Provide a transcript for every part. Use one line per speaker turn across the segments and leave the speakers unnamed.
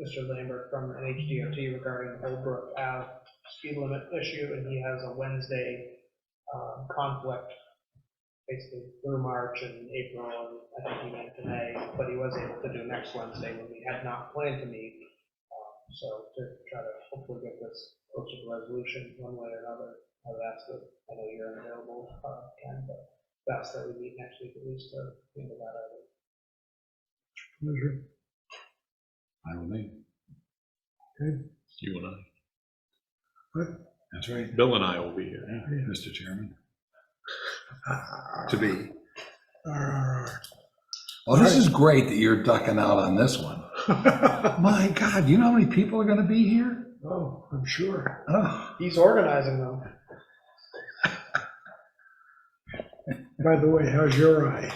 Mr. Lambert from NHDOT regarding Old Brook Ave speed limit issue, and he has a Wednesday um, conflict, basically through March and April, and I think he meant today, but he was able to do next Wednesday when we had not planned to meet. Um, So to try to hopefully get this posted resolution one way or another, I've asked that, I know you're unavailable, uh, Ken, but that's that we meet next week at least to think about it.
Pleasure.
I don't think,
You and I.
that's right,
Bill and I will be here.
yeah,
Yeah.
Mr. Chairman,
Ah,
to be.
ah,
Well, this is great that you're ducking out on this one. My God, you know how many people are gonna be here?
Oh, I'm sure.
Oh,
He's organizing them.
By the way, how's your eye?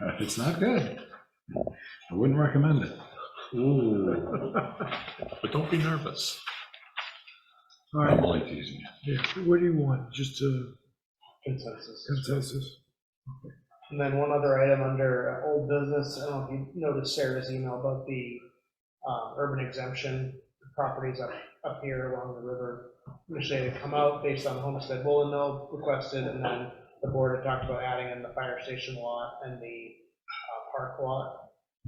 Uh, It's not good. I wouldn't recommend it.
Ooh. But don't be nervous.
All
I'm
right,
only teasing you.
yeah, what do you want? Just a
Consensus.
consensus?
And then one other item under uh, old business, I don't know if you noticed Sarah's email about the um, urban exemption properties up, up here along the river. Which they had come out based on Homestead Woolen Mill requested, and then the board had talked about adding in the fire station lot and the uh, park lot.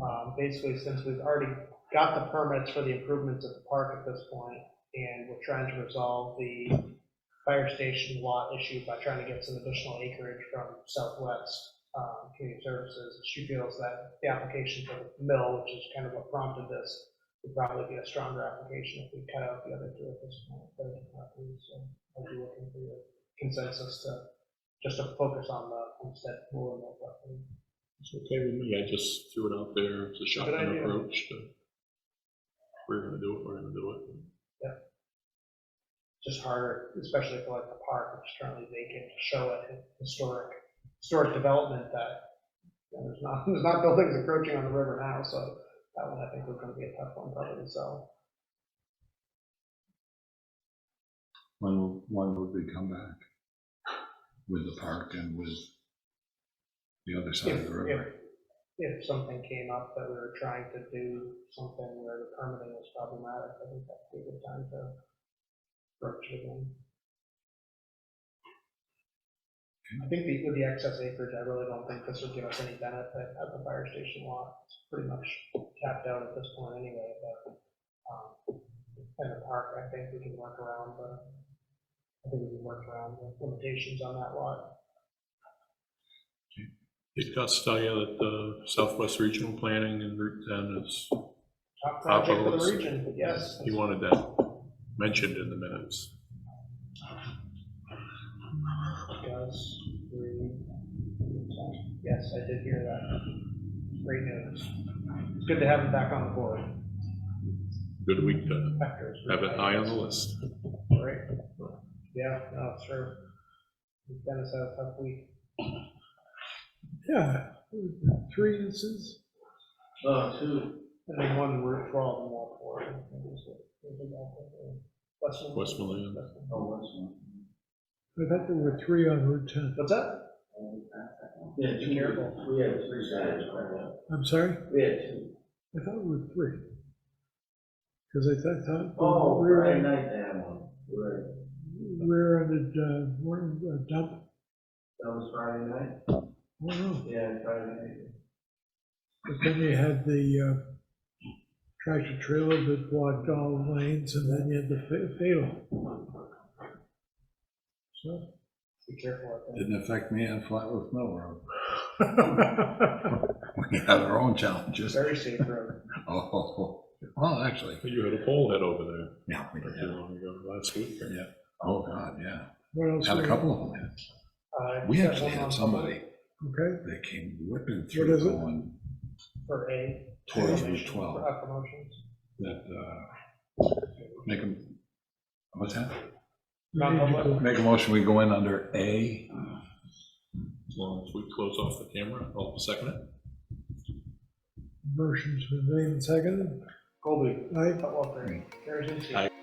Um, Basically, since we've already got the permits for the improvements of the park at this point, and we're trying to resolve the fire station lot issue by trying to get some additional acreage from Southwest um, Community Services. She feels that the application for the mill, which is kind of what prompted this, would probably be a stronger application if we cut out the other two at this point. but it's not really, So I'd be looking for your consensus to, just to focus on the homestead pool and that. kind of thing.
It's okay with me. I just threw it out there. It's a shotgun
idea.
approach. to- We're gonna do it, we're gonna do it.
Just harder, especially for like the park, which is currently vacant, to show a historic, historic development that you know, there's not, there's not buildings encroaching on the river now, so that one I think was gonna be a tough one probably to sell.
When, will- when would we come back? With the park and with the other side
If,
of the
if,
river?
if something came up that we were trying to do something where the permitting was problematic, I think that'd be a good time to approach it again. I think the- with the excess acreage, I really don't think this would give us any benefit at the fire station lot. It's pretty much tapped out at this point anyway, but, um, in the park, I think we can work around the, I think we can work around the limitations on that lot.
Did Gus tell you that the Southwest Regional Planning and Route 10 is,
Top project for
Outlaws.
the region, yes.
he wanted that mentioned in the minutes.
Gus, three, ten. Yes, I did hear that. Great news. It's good to have him back on the board.
Good week to
after his
have it high on the list.
Right. Yeah, no, sure. Dennis had a tough week.
Yeah, three instances?
Oh, two. And then one Route 12 and Walport. I think it was the- it was the Walport, uh, Westland.
Westmoreland.
Westland.
Oh,
I thought there were three on Route 10.
What's that?
Yeah,
Be careful.
We had three sides, right?
I'm sorry?
We had two.
I thought it were three. Because I thought- thought.
Oh,
we were
Friday
on-
night that one, right,
We were on the, uh, one, uh, dump.
that was Friday night?
Oh, no.
Yeah, Friday night.
But then you had the uh, tractor trailer that blocked all lanes and then you had the fa- fatal. So,
Be careful out there.
Didn't affect me on Flatwoods Mill Road. We had our own challenges.
Very safe road.
Oh, well, actually,
You had a pole head over there
yeah, we
not too
did.
long ago, last week. or-
Yeah. Oh, God, yeah.
what else?
Had
we-
a couple of them.
Uh,
We
got
actually
one on
had somebody
Okay,
that came whipping through
What is it?
going
For A.
towards Route
promotion-
12,
for, uh, Promotions.
that, uh, make them, what's that?
we need to go-
Make a motion, we go in under A.
As long as we close off the camera, I'll second it.
motion's been made and seconded.
Colby,
Aye.
Cutwalker, Harrison,
Aye.